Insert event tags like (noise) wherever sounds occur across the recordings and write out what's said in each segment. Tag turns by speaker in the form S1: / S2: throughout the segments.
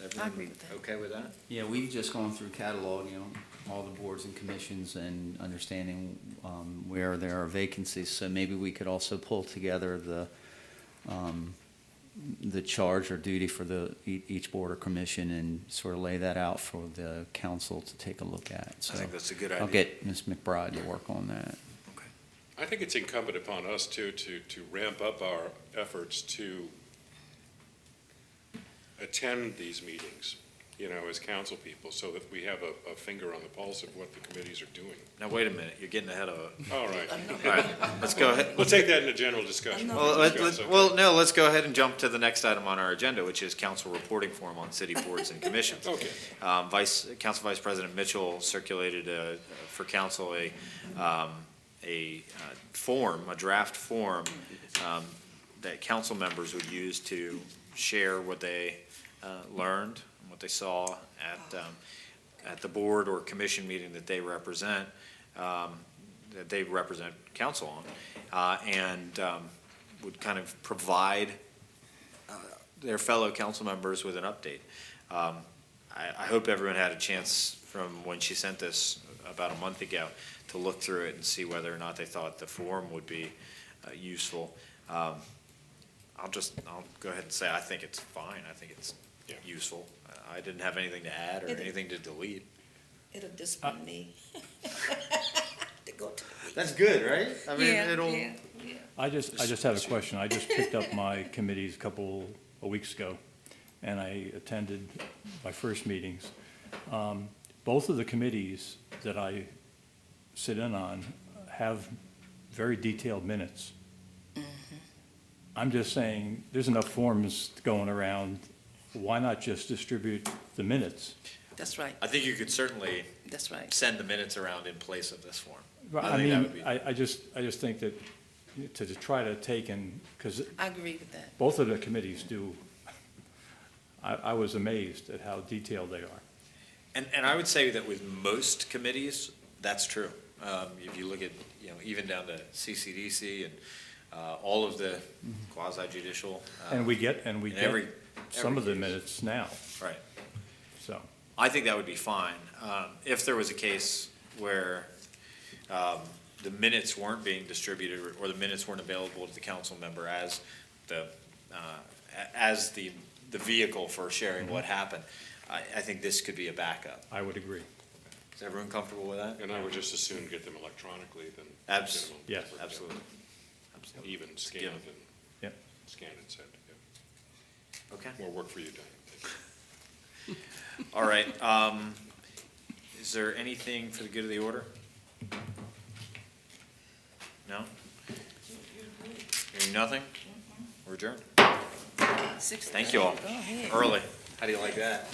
S1: I
S2: everyone
S1: agree with that.
S2: okay with that?
S3: Yeah, we've just gone through cataloging all the boards and commissions and understanding um, where there are vacancies. So maybe we could also pull together the, um, the charge or duty for the, e- each board or commission and sort of lay that out for the council to take a look at.
S4: I think that's a good
S3: So I'll
S4: idea.
S3: get Ms. McBride to work on that.
S5: I think it's incumbent upon us too, to, to ramp up our efforts to attend these meetings, you know, as council people, so that we have a, a finger on the pulse of what the committees are doing.
S4: Now, wait a minute, you're getting ahead of it.
S5: All right,
S4: All right, let's go ahead.
S5: we'll take that in a general
S4: (laughs)
S5: discussion.
S4: Well, let,
S5: Discuss,
S4: let,
S5: okay.
S4: well, no, let's go ahead and jump to the next item on our agenda, which is council reporting form on city boards and commissions.
S5: Okay.
S4: Um, Vice, Council Vice President Mitchell circulated, uh, for council a, um, a, uh, form, a draft form, um, that council members would use to share what they, uh, learned, and what they saw at, um, at the board or commission meeting that they represent, um, that they represent council on. Uh, and, um, would kind of provide, uh, their fellow council members with an update. Um, I, I hope everyone had a chance from when she sent this about a month ago to look through it and see whether or not they thought the form would be uh, useful. Um, I'll just, I'll go ahead and say, I think it's fine, I think it's
S5: Yeah.
S4: useful. I didn't have anything to add or
S1: It-
S4: anything to delete.
S1: It'll discipline me. (laughs) To go to.
S4: That's good, right? I mean,
S1: Yeah,
S4: it'll,
S1: yeah, yeah.
S6: I just, I just have a question. I just picked up my committees a couple of weeks ago, and I attended my first meetings. Um, Both of the committees that I sit in on have very detailed minutes. I'm just saying, there's enough forms going around. Why not just distribute the minutes?
S1: That's right,
S4: I think you could certainly
S1: that's right.
S4: send the minutes around in place of this form. I think
S6: I
S4: that
S6: mean,
S4: would be-
S6: I, I just, I just think that to to try to take and, because
S1: I agree with that.
S6: both of the committees do, I, I was amazed at how detailed they are.
S4: And, and I would say that with most committees, that's true. Um, if you look at, you know, even down to CCDC and, uh, all of the quasi judicial.
S6: Mm-hmm. And we get, and we
S4: In
S6: get
S4: Uh, every-
S6: some of the
S4: every case.
S6: minutes now,
S4: Right.
S6: so.
S4: I think that would be fine. Um, if there was a case where, um, the minutes weren't being distributed or- or the minutes weren't available to the council member as the, uh, a- as the, the vehicle for sharing
S6: Mm-hmm.
S4: what happened, I, I think this could be a backup.
S6: I would agree.
S4: Is everyone comfortable with that?
S5: And I would just as soon get them electronically than.
S4: Abs-
S5: get them on
S6: Yes.
S5: paper.
S4: Absolutely.
S5: Even scanned
S4: given.
S5: and.
S6: Yep.
S5: Scanned and sent, yeah.
S4: Okay.
S5: More work for you, Diane.
S4: All right, um, is there anything for the good of the order? No? Hearing nothing? We're adjourned.
S1: Six
S4: Thank you all.
S1: thirty. Go ahead.
S4: Early. How do you like that?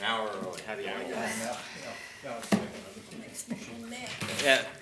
S4: An hour early, how do you like that?
S1: Makes me mad.
S4: Yeah.